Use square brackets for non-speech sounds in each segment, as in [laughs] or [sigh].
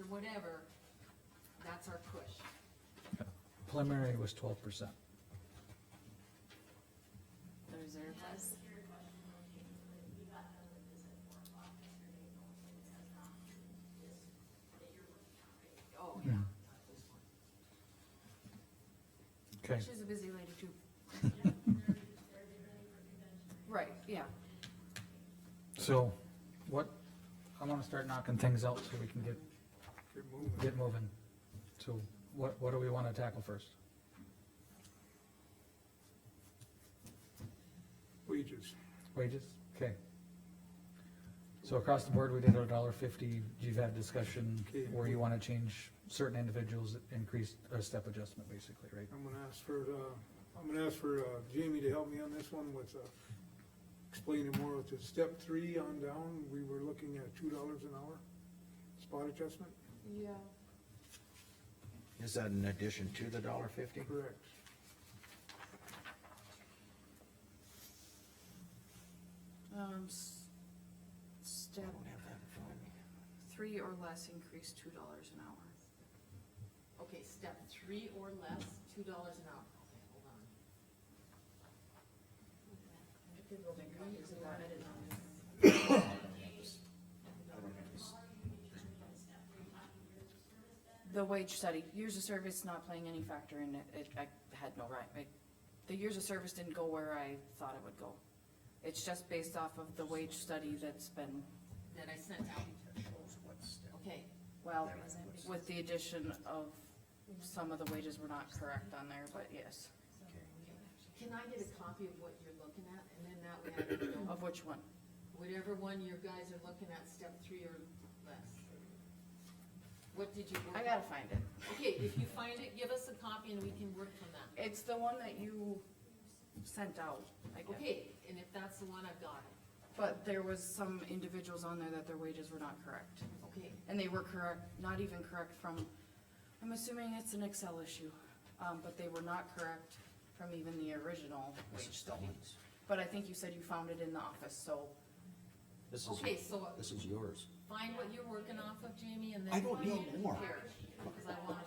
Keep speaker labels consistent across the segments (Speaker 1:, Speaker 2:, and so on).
Speaker 1: or whatever, that's our push.
Speaker 2: Preliminary was twelve percent.
Speaker 3: the reserve fund.
Speaker 1: Oh, yeah.
Speaker 2: Okay,
Speaker 1: She's a busy lady too. Right, yeah.
Speaker 2: so what, I wanna start knocking things out so we can get,
Speaker 4: Get moving.
Speaker 2: get moving. So what, what do we wanna tackle first?
Speaker 4: Wages.
Speaker 2: Wages? Okay. So across the board, we did a dollar fifty. You've had discussion
Speaker 4: Okay.
Speaker 2: where you wanna change certain individuals, increase a step adjustment basically, right?
Speaker 4: I'm gonna ask for, uh, I'm gonna ask for, uh, Jamie to help me on this one with, uh, explaining more with the step three on down, we were looking at two dollars an hour spot adjustment,
Speaker 1: Yeah.
Speaker 5: Is that in addition to the dollar fifty?
Speaker 4: correct?
Speaker 3: Um, s- step three or less increase two dollars an hour.
Speaker 1: Okay, step three or less, two dollars an hour. Okay, hold on.
Speaker 3: The wage study, years of service not playing any factor in it, it, I had no right, I, the years of service didn't go where I thought it would go. It's just based off of the wage study that's been,
Speaker 1: That I sent out. Okay,
Speaker 3: well, with the addition of, some of the wages were not correct on there, but yes,
Speaker 1: can I get a copy of what you're looking at, and then that way I can know
Speaker 3: of which one?
Speaker 1: whatever one you guys are looking at, step three or less? What did you work?
Speaker 3: I gotta find it.
Speaker 1: Okay, if you find it, give us a copy and we can work from that.
Speaker 3: It's the one that you sent out, I guess.
Speaker 1: Okay, and if that's the one, I've got it.
Speaker 3: But there was some individuals on there that their wages were not correct.
Speaker 1: Okay,
Speaker 3: And they were correct, not even correct from, I'm assuming it's an Excel issue, um, but they were not correct from even the original wage study. But I think you said you found it in the office, so
Speaker 5: This is,
Speaker 1: okay, so
Speaker 5: this is yours.
Speaker 1: find what you're working off of, Jamie, and then.
Speaker 5: I don't
Speaker 1: find
Speaker 5: need
Speaker 1: it
Speaker 5: more.
Speaker 1: here, Cause I wanna,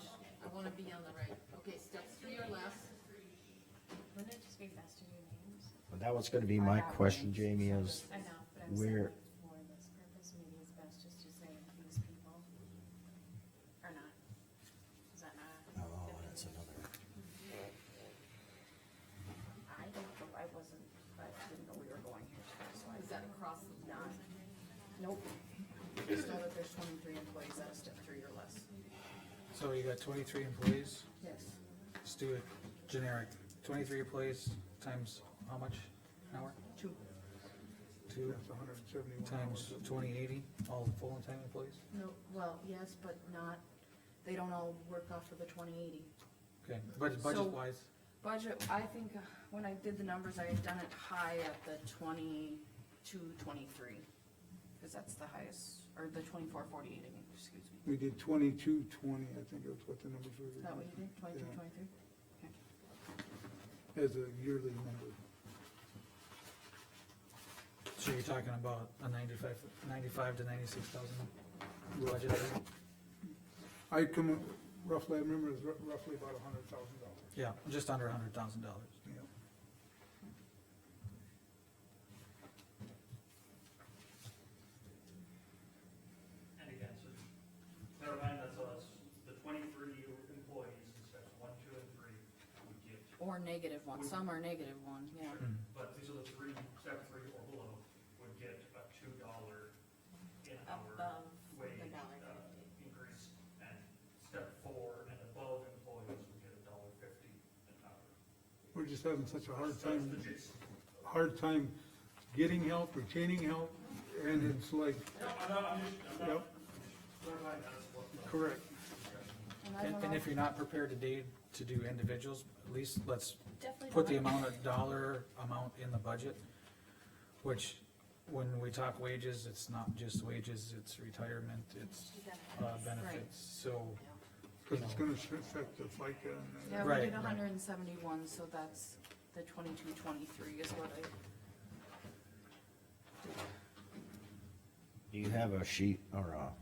Speaker 1: I wanna be on the right, okay, step three or less.
Speaker 6: Wouldn't it just be best to do names?
Speaker 5: But That was gonna be my question, Jamie, is
Speaker 6: I know, but I'm saying
Speaker 5: Where-
Speaker 6: like for this purpose, maybe it's best just to say these people or not. Is that not?
Speaker 5: Oh, that's another.
Speaker 3: I don't know, I wasn't, I didn't know we were going here today, so I.
Speaker 1: Is that across the
Speaker 3: Not,
Speaker 1: board?
Speaker 3: nope. Just know that there's twenty-three employees at a step three or less.
Speaker 2: So you got twenty-three employees,
Speaker 3: Yes.
Speaker 2: let's do it generic, twenty-three employees times how much an hour?
Speaker 3: Two.
Speaker 2: Two
Speaker 4: That's hundred and seventy-one
Speaker 2: times twenty eighty, all full-time employees?
Speaker 3: No, well, yes, but not, they don't all work off of the twenty-eighty.
Speaker 2: Okay, budget,
Speaker 3: So-
Speaker 2: budget-wise,
Speaker 3: Budget, I think, uh, when I did the numbers, I had done it high at the twenty-two, twenty-three, cause that's the highest, or the twenty-four, forty-eight, I mean, excuse me.
Speaker 4: We did twenty-two twenty, I think that's what the numbers were.
Speaker 3: Is that what you did, twenty-two,
Speaker 4: Yeah.
Speaker 3: twenty-three?
Speaker 4: As a yearly number.
Speaker 2: so you're talking about a ninety-five, ninety-five to ninety-six thousand
Speaker 4: Rough-
Speaker 2: budget?
Speaker 4: I come, up- roughly, I remember it was rou- roughly about a hundred thousand dollars.
Speaker 2: Yeah, just under a hundred thousand dollars.
Speaker 4: Yeah.
Speaker 7: And again, so, never mind, that's us, the twenty-three employees in steps one, two, and three would get,
Speaker 3: Or negative one, some are negative one, yeah.
Speaker 7: but these are the three, step three or below, would get a two dollar an hour
Speaker 1: Above
Speaker 7: wage,
Speaker 1: um, the dollar
Speaker 7: uh,
Speaker 1: fifty.
Speaker 7: increase. And step four and above employees would get a dollar fifty an hour.
Speaker 4: We're just having such a hard
Speaker 7: So That's the
Speaker 4: time,
Speaker 7: gist.
Speaker 4: hard time getting help, retaining help, and it's like,
Speaker 7: No, I'm not, I'm just, I'm
Speaker 4: yep,
Speaker 7: not, never mind, that's what. the-
Speaker 4: correct.
Speaker 3: I
Speaker 2: And,
Speaker 3: don't
Speaker 2: and
Speaker 3: know.
Speaker 2: if you're not prepared today to do individuals, at least let's
Speaker 6: Definitely.
Speaker 2: put the amount
Speaker 3: [laughs]
Speaker 2: of dollar amount in the budget, which, when we talk wages, it's not just wages, it's retirement, it's, uh, benefits, so.
Speaker 4: Cause it's gonna affect the FICA and
Speaker 3: Yeah,
Speaker 4: the
Speaker 3: we
Speaker 2: Right,
Speaker 3: did
Speaker 2: right.
Speaker 3: hundred and seventy-one, so that's the twenty-two, twenty-three is what I.
Speaker 5: Do you have a sheet or a